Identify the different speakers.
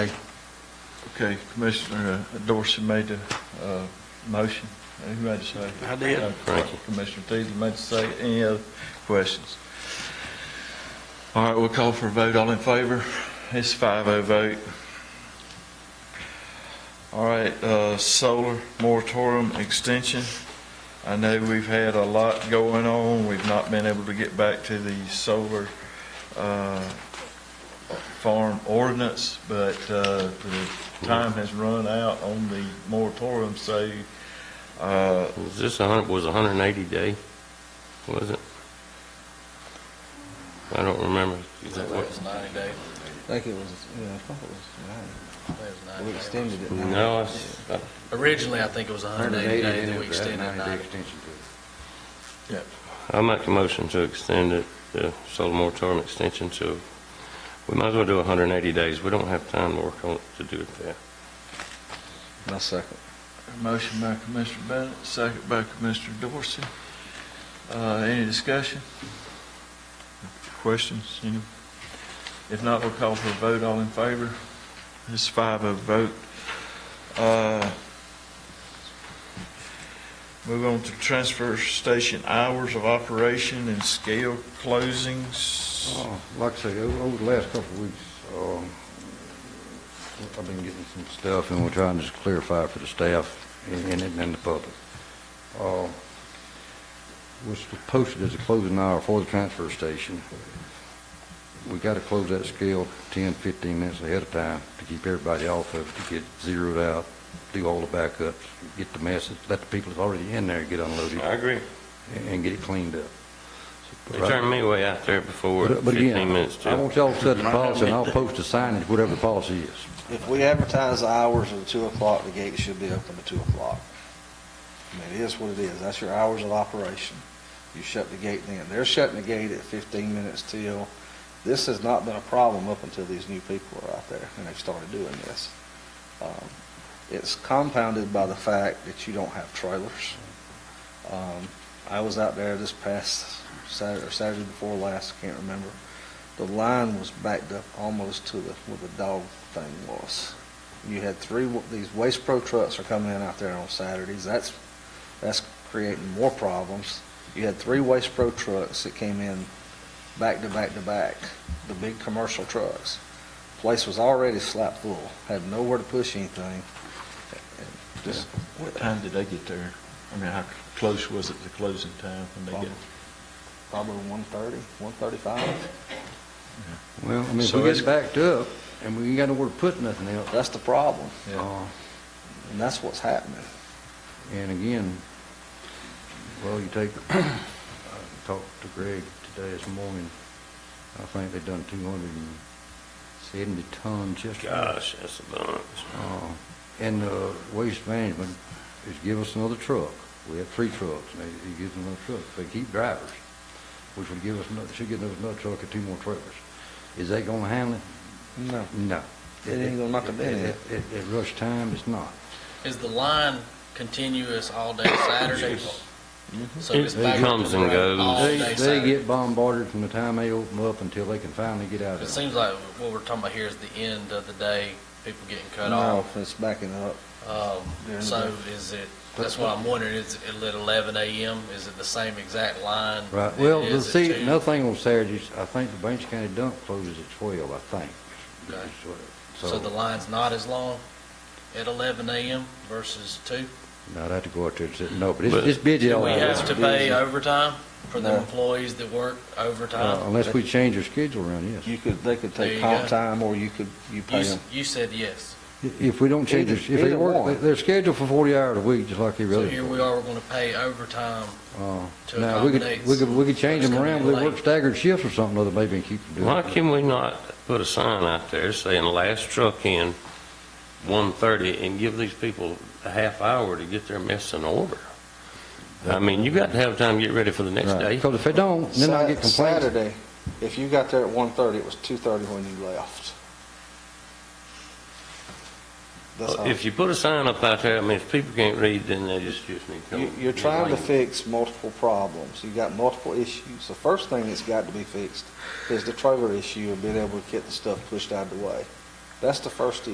Speaker 1: Okay, Commissioner uh, Dorsey made the uh, motion. Uh, Who made the second?
Speaker 2: I did.
Speaker 1: Uh,
Speaker 3: Thank you.
Speaker 1: Commissioner Teasley made the second. Any other questions? All right, we'll call for a vote. All in favor? It's five oh vote. All right, uh, solar moratorium extension. I know we've had a lot going on. We've not been able to get back to the solar uh, farm ordinance, but uh, the time has run out on the moratorium, so uh,
Speaker 3: Was this a hundred, was a hundred and eighty day, was it? I don't remember. Is that what-
Speaker 4: ninety days.
Speaker 5: I think it was, yeah, I thought it was
Speaker 4: I think it was
Speaker 5: nine. We
Speaker 4: 90 days.
Speaker 5: extended it.
Speaker 3: No, I s- I-
Speaker 4: Originally, I think it was hundred and eighty days, then we extended it ninety.
Speaker 3: I make a motion to extend it, the solar moratorium extension to, we might as well do a hundred and eighty days. We don't have time to work on it to do it there.
Speaker 5: My second.
Speaker 1: motion by Commissioner Bennett, second by Commissioner Dorsey. Uh, Any discussion? Questions? Any? If not, we'll call for a vote. All in favor? It's five of vote. Uh, Move on to transfer station hours of operation and scale closings.
Speaker 6: Uh, Like I say, o- over the last couple of weeks, um, I've been getting some stuff, and we're trying to just clarify for the staff and and- and the public. Uh, Was posted as a closing hour for the transfer station. We got to close that scale 10, 15 minutes ahead of time to keep everybody off of, it, to get zeroed out, do all the backups, get the message, let the people that's already in there get unloaded
Speaker 3: agree.
Speaker 6: and and get it cleaned up.
Speaker 3: They turned me way out there before,
Speaker 6: But but again,
Speaker 3: fifteen minutes
Speaker 6: I want
Speaker 3: to.
Speaker 6: y'all to set the policy, and I'll post the signage, whatever the policy is.
Speaker 5: If we advertise the hours at two o'clock, the gate should be open at two o'clock. I mean, it is what it is. That's your hours of operation. You shut the gate then. They're shutting the gate at fifteen minutes till. This has not been a problem up until these new people are out there and they've started doing this. Um, It's compounded by the fact that you don't have trailers. Um, I was out there this past Saturday, or Saturday before last, I can't remember. The line was backed up almost to the, where the dog thing was. You had three, wa- these Waste Pro trucks are coming in out there on Saturdays, that's, that's creating more problems. You had three Waste Pro trucks that came in back to back to back, the big commercial trucks. Place was already slap full, had nowhere to push anything. And Just,
Speaker 1: What time did they get there? I mean, how close was it to closing time when they get?
Speaker 5: probably one thirty, one thirty-five.
Speaker 6: Well, I mean, if
Speaker 1: So
Speaker 6: we
Speaker 1: it's-
Speaker 6: get backed up, and we ain't got nowhere to put nothing else,
Speaker 5: That's the problem,
Speaker 1: Yeah.
Speaker 6: uh,
Speaker 5: and that's what's happening.
Speaker 6: and again, well, you take, uh, I talked to Greg today this morning, I think they done 270 tons yesterday.
Speaker 3: Gosh, that's a bunch.
Speaker 6: Uh, And uh, Waste Management is giving us another truck. We have three trucks, and they, they give us another truck. They keep drivers, which would give us another, should give us another truck and two more trailers. Is that gonna handle it?
Speaker 5: No.
Speaker 6: No.
Speaker 5: It ain't gonna knock a dent in it.
Speaker 6: At- At at rush time, it's not.
Speaker 4: Is the line continuous all day Saturday? Mm-hmm. So it's
Speaker 3: It
Speaker 4: back up
Speaker 3: comes
Speaker 4: to
Speaker 3: and
Speaker 4: the road all
Speaker 3: goes.
Speaker 6: They,
Speaker 4: day
Speaker 6: they
Speaker 4: Saturday.
Speaker 6: get bombarded from the time they open up until they can finally get out
Speaker 4: It
Speaker 6: of it.
Speaker 4: seems like what we're talking about here is the end of the day, people getting cut
Speaker 5: No,
Speaker 4: off.
Speaker 5: it's backing up. During
Speaker 4: Um,
Speaker 5: the
Speaker 4: so
Speaker 5: day.
Speaker 4: is it, that's what I'm wondering, is it at eleven AM? Is it the same exact line?
Speaker 6: Right,
Speaker 4: that
Speaker 6: well,
Speaker 4: it
Speaker 6: the
Speaker 4: is at
Speaker 6: see,
Speaker 4: 2?
Speaker 6: another thing on Saturdays, I think the Banks County dump closes at twelve, I think.
Speaker 4: Okay. So
Speaker 6: So,
Speaker 4: the line's not as long at eleven AM versus two?
Speaker 6: no, I'd have to go out there and sit, no, but it's,
Speaker 3: But-
Speaker 6: it's busy
Speaker 4: Do
Speaker 6: all
Speaker 4: we
Speaker 6: out there.
Speaker 4: have to pay overtime for the
Speaker 5: No.
Speaker 4: employees that work
Speaker 6: Uh,
Speaker 4: overtime?
Speaker 6: Unless we change our schedule around, yes.
Speaker 5: You could, they could
Speaker 4: There you
Speaker 5: take comp
Speaker 4: go.
Speaker 5: time, or you could, you
Speaker 4: You,
Speaker 5: pay
Speaker 4: s-
Speaker 5: them.
Speaker 4: you said yes.
Speaker 6: If we don't change,
Speaker 5: Either-
Speaker 6: our- if they
Speaker 5: either
Speaker 6: work,
Speaker 5: one.
Speaker 6: they're scheduled for 40 hours a week, just like every
Speaker 4: So
Speaker 6: other.
Speaker 4: here we are, we're gonna pay overtime.
Speaker 6: Uh,
Speaker 4: to
Speaker 6: Now, we
Speaker 4: accommodate
Speaker 6: could, we could, we could change them
Speaker 4: what's gonna
Speaker 6: around,
Speaker 4: be
Speaker 6: they work
Speaker 4: late.
Speaker 6: staggered shifts or something, other maybe and keep them doing
Speaker 3: Why
Speaker 6: it.
Speaker 3: can we not put a sign out there saying last truck in, one thirty, and give these people a half hour to get their mess in order? I mean, you got to have time to get ready for the next day.
Speaker 6: Because if they don't, then I get
Speaker 5: Sat-
Speaker 6: complaints.
Speaker 5: Saturday, if you got there at one thirty, it was two thirty when you left. That's how,
Speaker 3: If you put a sign up out there, I mean, if people can't read, then they just, just need to come.
Speaker 5: you, you're trying to
Speaker 3: Like,
Speaker 5: fix multiple problems. You got multiple issues. The first thing that's got to be fixed is the trailer issue of being able to get the stuff pushed out of the way. That's the first issue.